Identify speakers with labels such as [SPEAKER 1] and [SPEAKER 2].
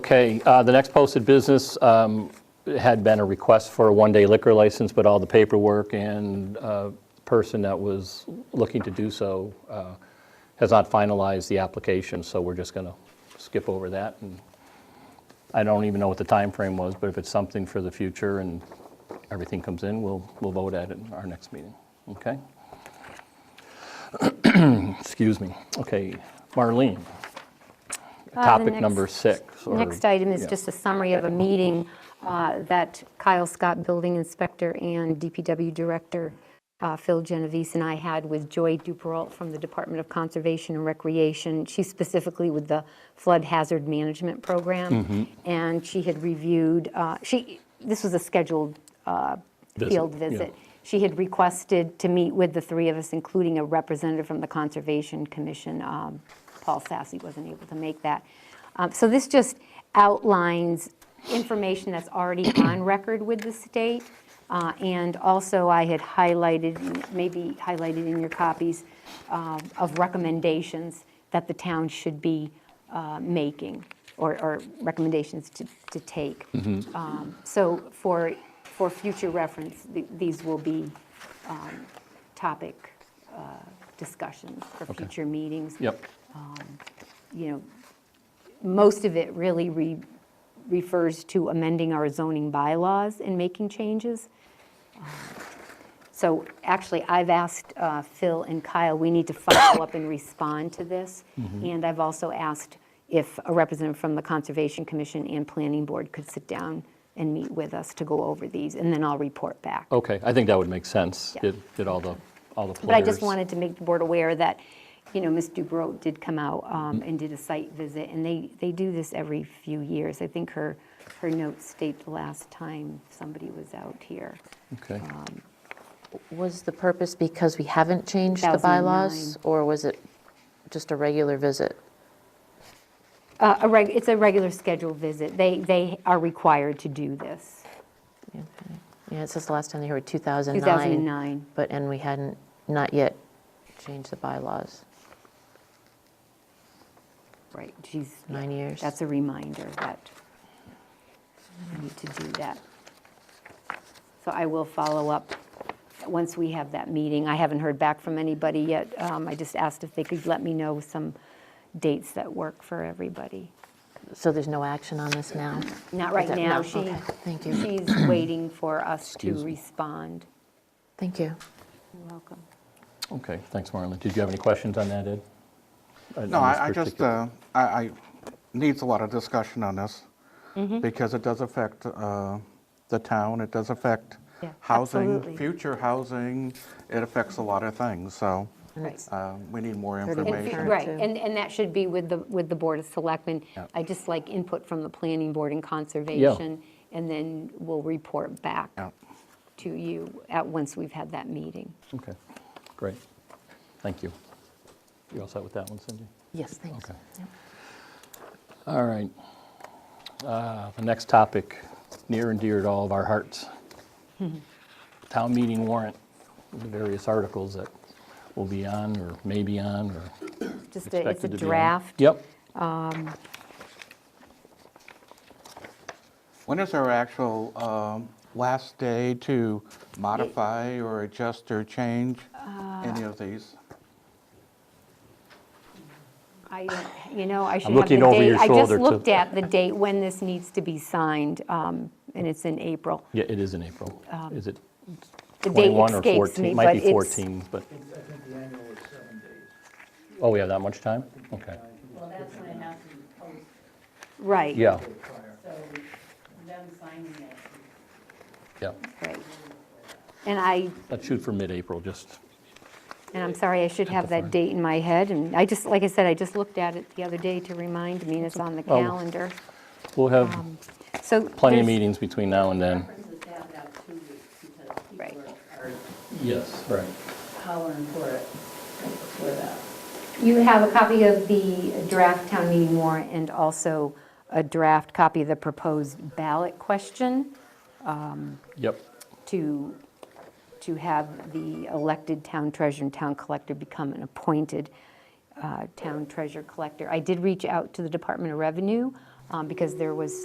[SPEAKER 1] Okay, uh, the next posted business um, had been a request for a one-day liquor license, but all the paperwork and uh, person that was looking to do so uh, has not finalized the application, so we're just going to skip over that. And I don't even know what the time frame was, but if it's something for the future and everything comes in, we'll, we'll vote at it in our next meeting, okay? Excuse me. Okay, Marlene,
[SPEAKER 2] Uh, the
[SPEAKER 1] topic
[SPEAKER 2] next-
[SPEAKER 1] number six. or-
[SPEAKER 2] Next item is
[SPEAKER 1] yeah.
[SPEAKER 2] just a summary of a meeting uh, that Kyle Scott, Building Inspector, and DPW Director uh, Phil Genovese and I had with Joy Duperrault from the Department of Conservation and Recreation. She's specifically with the Flood Hazard Management
[SPEAKER 1] Mm-hmm.
[SPEAKER 2] Program. And she had reviewed, uh, she, this was a scheduled uh,
[SPEAKER 1] Visit,
[SPEAKER 2] field
[SPEAKER 1] yeah.
[SPEAKER 2] visit. She had requested to meet with the three of us, including a representative from the Conservation Commission. Um, Paul Sassy wasn't able to make that. Um, So this just outlines information that's already on record with the state. Uh, And also, I had highlighted, maybe highlighted in your copies, um, of recommendations that the town should be uh, making, or or recommendations to to take. Um, So for, for future reference, th- these will be um, topic uh, discussions for future meetings.
[SPEAKER 1] Yep,
[SPEAKER 2] You know, most of it really re- refers to amending our zoning bylaws and making changes. Um, So actually, I've asked uh, Phil and Kyle, we need to follow up and respond to this. And I've also asked if a representative from the Conservation Commission and Planning Board could sit down and meet with us to go over these, and then I'll report back.
[SPEAKER 1] okay, I think that would make sense.
[SPEAKER 2] Yeah.
[SPEAKER 1] Did did all the, all the players.
[SPEAKER 2] But I just wanted to make the board aware that, you know, Ms. Dubrow did come out um, and did a site visit, and they, they do this every few years. I think her, her notes state the last time somebody was out here.
[SPEAKER 1] Okay,
[SPEAKER 2] um,
[SPEAKER 3] Was the purpose because we haven't changed the bylaws?
[SPEAKER 2] 2009.
[SPEAKER 3] Or was it just a regular visit?
[SPEAKER 2] Uh, A reg, it's a regular scheduled visit. They, they are required to do this.
[SPEAKER 3] Yeah, it says the last time they were 2009.
[SPEAKER 2] 2009.
[SPEAKER 3] But, and we hadn't, not yet changed the bylaws.
[SPEAKER 2] Right, she's.
[SPEAKER 3] Nine years.
[SPEAKER 2] That's a reminder that we need to do that. So I will follow up once we have that meeting. I haven't heard back from anybody yet. Um, I just asked if they could let me know some dates that work for everybody.
[SPEAKER 3] So there's no action on this now?
[SPEAKER 2] Not right
[SPEAKER 3] Is that-
[SPEAKER 2] now,
[SPEAKER 3] no,
[SPEAKER 2] she,
[SPEAKER 3] okay, Thank you,
[SPEAKER 2] she's waiting for us to
[SPEAKER 1] Excuse me.
[SPEAKER 2] respond.
[SPEAKER 3] thank you.
[SPEAKER 2] You're welcome.
[SPEAKER 1] okay, thanks, Marlene. Did you have any questions on that, Ed? On
[SPEAKER 4] No,
[SPEAKER 1] this
[SPEAKER 4] I, I just,
[SPEAKER 1] particular-
[SPEAKER 4] uh, I, I, needs a lot of discussion on this,
[SPEAKER 2] Mm-hmm.
[SPEAKER 4] because it does affect uh, the town, it does affect
[SPEAKER 2] Yeah, absolutely.
[SPEAKER 4] housing, future housing, it affects a lot of things, so
[SPEAKER 2] Right.
[SPEAKER 4] uh, we need more
[SPEAKER 3] Thirty
[SPEAKER 2] And fe-
[SPEAKER 4] information.
[SPEAKER 2] Right,
[SPEAKER 3] too.
[SPEAKER 2] and, and that should be with the, with the Board of Selectmen.
[SPEAKER 4] Yeah.
[SPEAKER 2] I just like input from the Planning Board and Conservation, and then we'll report back
[SPEAKER 4] Yeah.
[SPEAKER 2] to you at, once we've had that meeting.
[SPEAKER 1] Okay, great, thank you. You all set with that one, Cindy?
[SPEAKER 3] Yes, thanks.
[SPEAKER 1] Okay.
[SPEAKER 3] Yep.
[SPEAKER 1] All right. Uh, The next topic, near and dear to all of our hearts. Town meeting warrant, the various articles that will be on or may be on or
[SPEAKER 2] Just, a- it's a
[SPEAKER 1] expected to be on.
[SPEAKER 2] draft.
[SPEAKER 1] Yep,
[SPEAKER 4] When is our actual um, last day to modify or adjust or change
[SPEAKER 2] Uh,
[SPEAKER 4] any of these?
[SPEAKER 2] I, don't- you know, I should have the
[SPEAKER 1] looking
[SPEAKER 2] date.
[SPEAKER 1] over your
[SPEAKER 2] I just
[SPEAKER 1] shoulder to-
[SPEAKER 2] looked at the date when this needs to be signed, um, and it's in April.
[SPEAKER 1] yeah, it is in April. Is it
[SPEAKER 2] Um, The date
[SPEAKER 1] 21 or
[SPEAKER 2] escapes
[SPEAKER 1] 14?
[SPEAKER 2] me,
[SPEAKER 1] It
[SPEAKER 2] but
[SPEAKER 1] Might
[SPEAKER 2] it's.
[SPEAKER 1] be 14, but,
[SPEAKER 5] I think the annual is seven days.
[SPEAKER 1] oh, we have that much time? Okay,
[SPEAKER 6] Well, that's when it has to be posted,
[SPEAKER 2] Right.
[SPEAKER 1] yeah,
[SPEAKER 6] so them signing it.
[SPEAKER 1] yeah.
[SPEAKER 2] right. And I
[SPEAKER 1] Let's shoot for mid-April, just,
[SPEAKER 2] And I'm sorry, I should have
[SPEAKER 1] fine.
[SPEAKER 2] that date in my head, and I just, like I said, I just looked at it the other day to remind me, and it's on the
[SPEAKER 1] Oh.
[SPEAKER 2] calendar.
[SPEAKER 1] we'll have
[SPEAKER 2] So.
[SPEAKER 1] plenty of
[SPEAKER 2] Um, there's-
[SPEAKER 1] meetings between now and then.
[SPEAKER 6] Preferences have it out two weeks because
[SPEAKER 2] Right.
[SPEAKER 6] people are are
[SPEAKER 1] Yes, right.
[SPEAKER 6] hollering for it for that.
[SPEAKER 2] You have a copy of the draft town meeting warrant and also a draft copy of the proposed ballot question
[SPEAKER 1] Yep,
[SPEAKER 2] to, to have the elected town treasurer and town collector become an appointed uh, town treasurer collector. I did reach out to the Department of Revenue. um, because there was